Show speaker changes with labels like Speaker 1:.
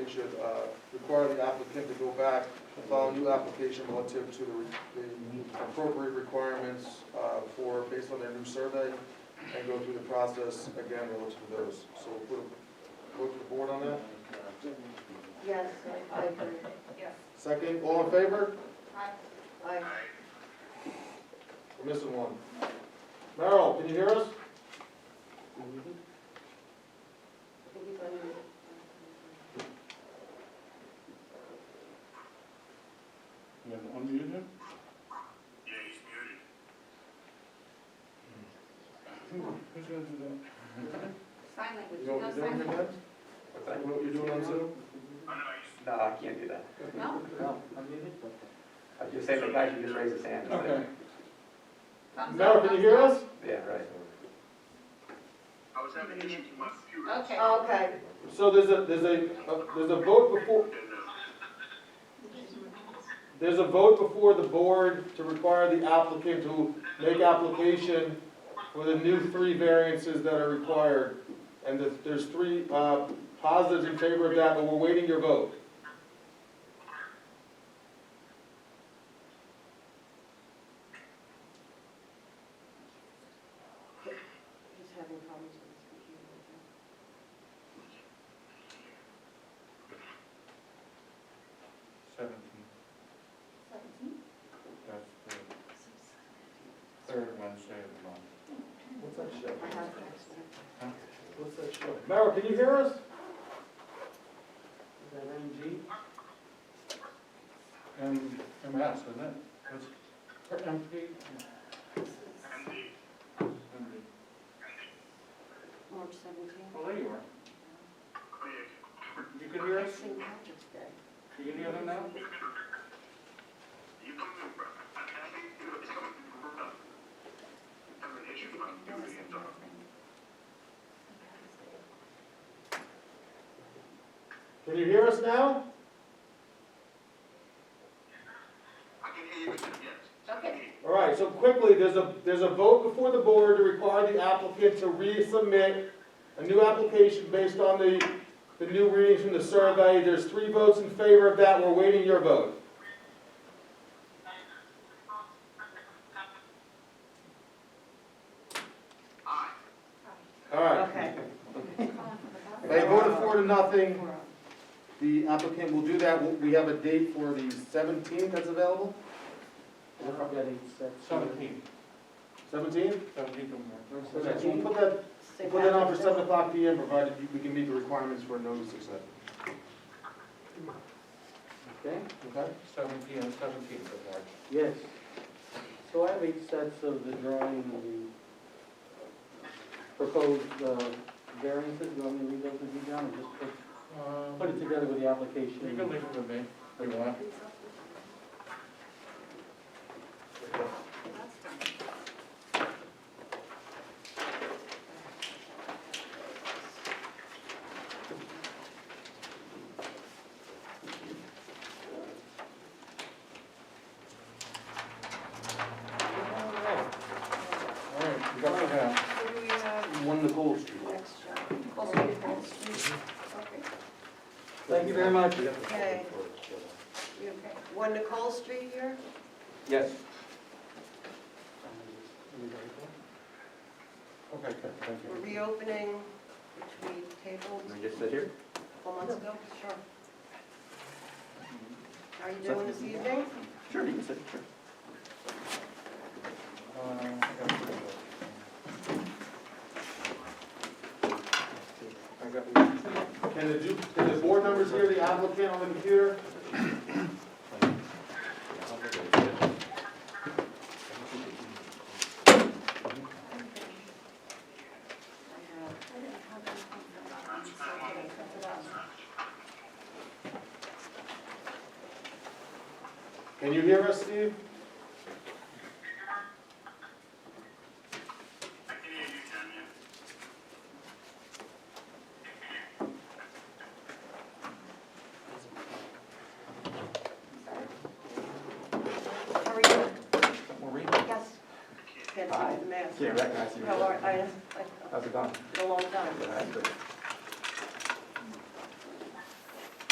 Speaker 1: it should uh, require the applicant to go back and file a new application relative to the re- the appropriate requirements uh, for, based on their new survey, and go through the process again relative to those. So we'll vote to the board on that.
Speaker 2: Yes, I agree.
Speaker 1: Second, all in favor?
Speaker 2: I,
Speaker 1: We're missing one. Merrill, can you hear us?
Speaker 3: You have unmuted him? Yeah, he's muted. Who's gonna do that?
Speaker 4: Sign
Speaker 1: You know
Speaker 4: language,
Speaker 1: what
Speaker 4: no sign
Speaker 1: you're doing with
Speaker 4: language.
Speaker 1: that? You know what you're doing on Zoom?
Speaker 5: No, I can't do that.
Speaker 4: No,
Speaker 5: No, I just say the guy should just raise his hand.
Speaker 1: Okay.
Speaker 4: thumbs up.
Speaker 1: Merrill, can you hear
Speaker 4: thumbs
Speaker 1: us?
Speaker 5: Yeah, right.
Speaker 6: I was having issues with my computer.
Speaker 4: up. Okay.
Speaker 2: Oh, okay,
Speaker 1: So there's a, there's a, uh, there's a vote before, there's a vote before the board to require the applicant to make application for the new three variances that are required. And there's, there's three, uh, positives in favor of that, but we're waiting your vote.
Speaker 2: he's having problems with his computer.
Speaker 3: Seventeen,
Speaker 4: Seventeen.
Speaker 3: that's the third Wednesday of the month.
Speaker 1: What's that show?
Speaker 2: I have to ask him.
Speaker 1: What's that show? Merrill, can you hear us?
Speaker 7: Is that MG?
Speaker 3: M, MS, isn't it? That's, or MP? MD.
Speaker 2: March seventeenth.
Speaker 3: Well, there you are. You can hear us?
Speaker 2: St. Patrick's Day.
Speaker 3: You can hear them now?
Speaker 1: Can you hear us now?
Speaker 6: I can hear you, yes.
Speaker 4: Okay.
Speaker 1: All right, so quickly, there's a, there's a vote before the board to require the applicant to resubmit a new application based on the, the new readings from the survey. There's three votes in favor of that, we're waiting your vote.
Speaker 6: Aye.
Speaker 1: All right.
Speaker 2: Okay.
Speaker 4: Calling for the bus.
Speaker 1: They voted four to nothing, the applicant will do that, We- we have a date for the seventeenth that's available?
Speaker 7: I don't get it, that's-
Speaker 3: Seventeen.
Speaker 1: Seventeenth?
Speaker 3: Seventeen from there.
Speaker 1: So we'll put that, we'll
Speaker 2: St.
Speaker 1: put that on for
Speaker 2: Patrick's
Speaker 1: seven
Speaker 2: Day.
Speaker 1: o'clock P M, provided you- we can meet the requirements for a notice of that.
Speaker 7: Okay,
Speaker 1: Okay?
Speaker 3: Seventeen and seventeen of March.
Speaker 7: yes. So I have eight sets of the drawing of the proposed uh, variances, you want me to read those with you, John, or just put- put it
Speaker 3: Um,
Speaker 7: together with the
Speaker 3: you can
Speaker 7: application?
Speaker 3: leave it with me, if you want. All right, you got it down.
Speaker 4: Who do we have
Speaker 7: One Nicole Street.
Speaker 4: next, John? Full Street, Full Street. Okay.
Speaker 7: Thank you very much.
Speaker 2: Okay.
Speaker 4: You okay?
Speaker 2: One Nicole Street here?
Speaker 5: Yes.
Speaker 3: Okay, good, thank
Speaker 2: We're
Speaker 3: you.
Speaker 2: reopening, which we tabled
Speaker 5: Can we just sit here?
Speaker 2: a couple months ago. Sure. How are you doing this evening?
Speaker 5: Sure, you can sit, sure.
Speaker 3: Uh, I got it. I got it.
Speaker 1: Can the, du- can the board members hear the applicant on the computer?
Speaker 4: I didn't have anything for that one, so I didn't print it out.
Speaker 1: Can you hear us, Steve?
Speaker 2: How are you?
Speaker 5: Maureen?
Speaker 2: Yes. Can't see
Speaker 5: Hi.
Speaker 2: with the mask.
Speaker 5: Can't recognize you.
Speaker 2: How are, I, I,
Speaker 5: How's it going?
Speaker 2: it's been a long time.
Speaker 5: Good, how's it going?